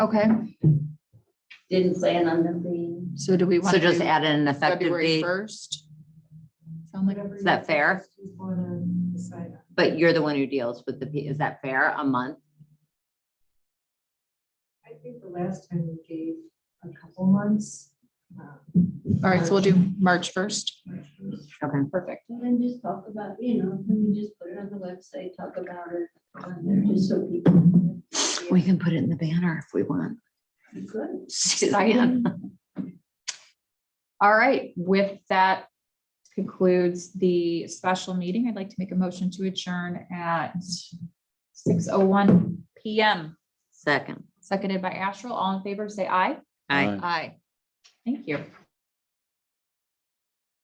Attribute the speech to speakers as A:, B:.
A: Okay,
B: Didn't plan on them being.
A: so do we want
C: So
A: to
C: just
A: do
C: add in an effective
A: February
C: date,
A: first? Sound like,
C: is that fair?
D: Well,
C: But you're the one who deals with the, P- is that fair, a month?
D: I think the last time we gave a couple months.
A: all right, so we'll do March first.
C: Okay.
A: Perfect.
B: And then just talk about, you know, let me just put it on the website, talk about it on there, just so people.
C: We can put it in the banner if we want.
B: Good.
C: Suzanne.
A: All right, with that concludes the special meeting. I'd like to make a motion to adjourn at six oh one PM,
C: Second.
A: seconded by Astral. All in favor, say aye.
C: Aye.
A: Aye. Thank you.